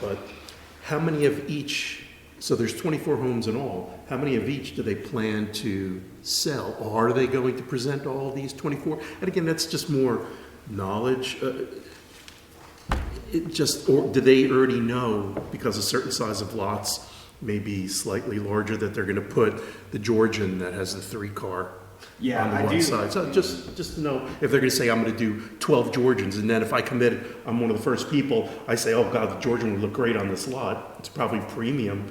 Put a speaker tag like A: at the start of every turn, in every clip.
A: But how many of each, so there's 24 homes in all, how many of each do they plan to sell? Or are they going to present all these 24? And again, that's just more knowledge. uh, It just, or do they already know, because a certain size of lots may be slightly larger, that they're going to put the Georgian that has the three-car
B: Yeah,
A: on the
B: I
A: one
B: do.
A: side? So just, just to know, if they're going to say, I'm going to do 12 Georgians, and then if I commit, I'm one of the first people, I say, oh God, the Georgian would look great on this lot. It's probably premium.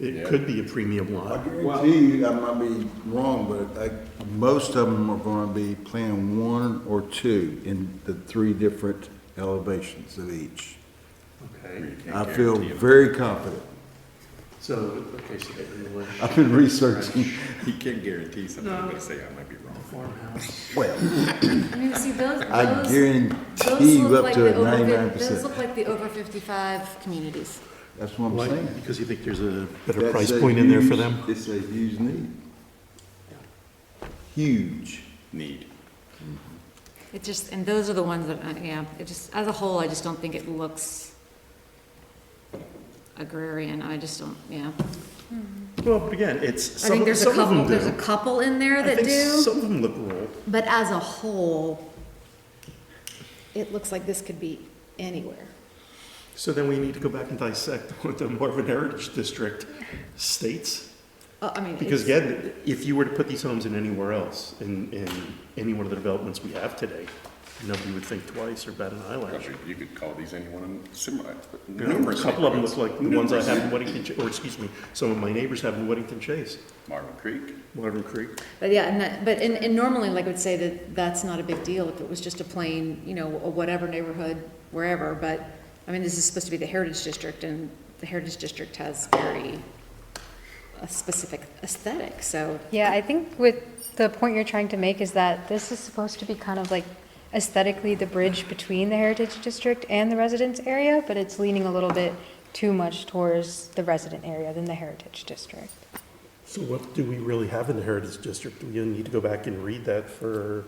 A: It
C: Yeah.
A: could be a premium
D: I
A: lot.
D: guarantee you, I might be wrong, but I, most of them are gonna be playing one or two in the three different elevations of each.
A: Okay.
D: I feel very confident.
A: So, okay, so they're in the way.
D: I've been researching.
C: He can guarantee something,
A: No.
C: I'm gonna say I might be wrong.
A: farmhouse.
D: Well,
E: I mean, see, those,
D: I
E: those,
D: guarantee
E: those
D: you
E: look
D: up
E: like
D: to
E: the
D: a
E: over,
D: ninety-nine
E: fif- those
D: percent.
E: look like the over fifty-five communities.
D: That's what I'm
A: Why?
D: saying.
A: Because you think there's a better
D: That's
A: price
D: a
A: point in there for
D: huge-
A: them?
D: It's a huge need. Huge.
C: Need.
E: It just, and those are the ones that, I- yeah, it just, as a whole, I just don't think it looks agrarian, I just don't, yeah.
A: Well, but again, it's,
E: I
A: some
E: think
A: of
E: there's a
A: some of
E: couple,
A: them
E: there's a
A: do.
E: couple in there
A: I
E: that
A: think
E: do,
A: some of them look rural.
E: but as a whole,
F: it looks like this could be anywhere.
A: So then we need to go back and dissect what the Marvin Heritage District states.
F: Uh, I mean,
A: Because
F: it's-
A: again, if you were to put these homes in anywhere else, in, in any one of the developments we have today, nobody would think twice or bat an eyelash.
C: Gosh, You could call these any one of them similar,
A: You know, A
C: numerous.
A: couple of them
C: neighborhoods.
A: look like the ones I
C: Numerous.
A: have in Weddington, Ch- or excuse me, some of my neighbors have in Weddington Chase,
C: Marvin Creek,
A: Marvin Creek.
F: but yeah, and that, but, and, and normally, like, I would say that that's not a big deal if it was just a plain, you know, a whatever neighborhood, wherever, but, I mean, this is supposed to be the Heritage District, and the Heritage District has very, a specific aesthetic, so,
G: Yeah, I think with the point you're trying to make is that this is supposed to be kind of like aesthetically the bridge between the heritage district and the residence area, but it's leaning a little bit too much towards the resident area than the heritage district.
A: So what do we really have in the Heritage District? We need to go back and read that for,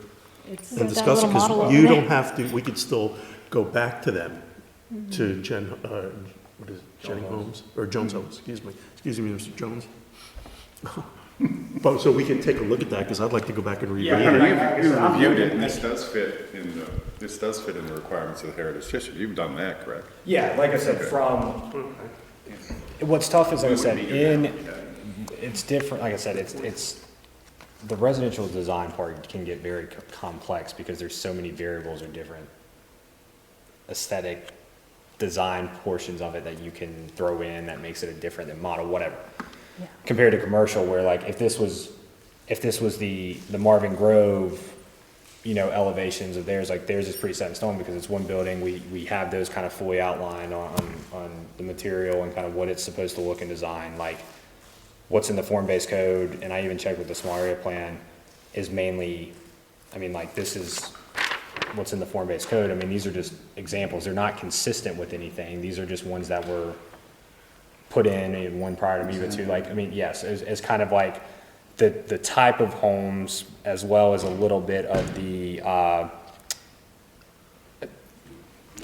G: It's
A: and
G: that
A: discuss it,
G: little model
A: because
G: over
A: you
G: there.
A: don't have to, we could still go back to them,
G: Mm-hmm.
A: to Jen, uh, what is it, Jenny Holmes, or Jones Holmes, excuse me, excuse me, Mr. Jones. But, so we can take a look at that, because I'd like to go back and reread
B: Yeah,
A: it.
B: I-
C: You
B: I'm
C: reviewed
B: looking
C: it, and
B: at-
C: this does fit in the, this does fit in the requirements of the Heritage District. You've done that, correct?
B: Yeah, like I said, from,
H: What's tough is, like I said,
C: wouldn't be doing
H: in, it's different, like I said, it's, it's, the residential design part can get very co- complex because there's so many variables or different aesthetic design portions of it that you can throw in that makes it a different than model, whatever. Compared to commercial where like if this was, if this was the, the Marvin Grove, you know, elevations of theirs, like theirs is pretty set in stone because it's one building, we, we have those kind of fully outlined on, on- on the material and kind of what it's supposed to look and design, like what's in the form-based code, and I even checked with the small area plan, is mainly, I mean, like, this is what's in the form-based code, I mean, these are just examples, they're not consistent with anything, these are just ones that were put in, and one prior to me, but two, like, I mean, yes, it's, it's kind of like the, the type of homes, as well as a little bit of the, uh,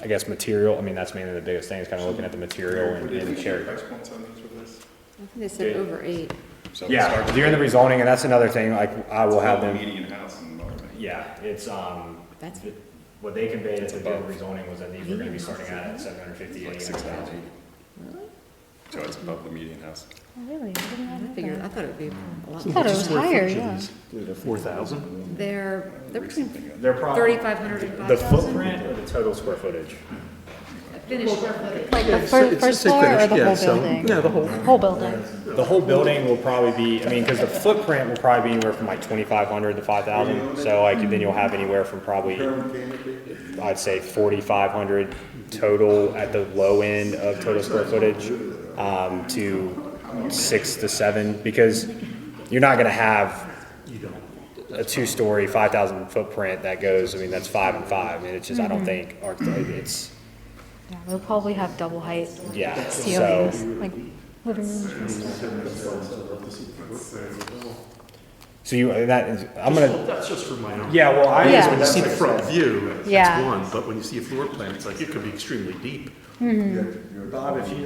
H: I guess, material, I mean, that's mainly the biggest thing, is kind of looking at the material and,
C: Would it
H: and
C: be
H: cherry.
C: price points on these with this?
F: I think they said over eight.
C: So we
H: Yeah,
C: start
H: during the rezoning, and that's another thing, like, I will have
C: with
H: them,
C: Median house in Marvin.
H: yeah, it's, um,
F: That's-
H: th- what they conveyed at the during rezoning was that these were gonna be starting out at seven hundred fifty, eight hundred thousand.
C: So it's above the median house.
G: Oh, Really? I didn't
F: I
G: know that.
F: figured, I thought it would be a lot.
G: I thought it was higher, yeah.
A: Four thousand?
F: They're, they're between
H: They're probably,
F: thirty-five hundred and
H: the
F: five thousand.
H: footprint or the total square footage?
F: Finished,
G: Like the fir- first floor or the whole building?
A: Yeah, the whole,
G: Whole building.
H: The whole building will probably be, I mean, because the footprint will probably be anywhere from like twenty-five hundred to five thousand, so like, then you'll have anywhere from probably, I'd say forty-five hundred total at the low end of total square footage, um, to six to seven, because you're not gonna have a two-story, five thousand footprint that goes, I mean, that's five and five, I mean, it's just, I don't think, arch- it's,
G: Yeah, we'll probably have double height
H: yeah, so.
G: ceilings, like living rooms.
H: So you, that is, I'm
A: Just-
H: gonna,
A: That's just for my own.
B: Yeah, well, I.
A: Because
G: Yeah.
A: when you
B: that's
A: see the
B: like I
A: front
B: said.
A: view, it's
G: Yeah.
A: one, but when you see a floor plan, it's like, it could be extremely deep.
D: Yeah, you're-
B: Bob, if you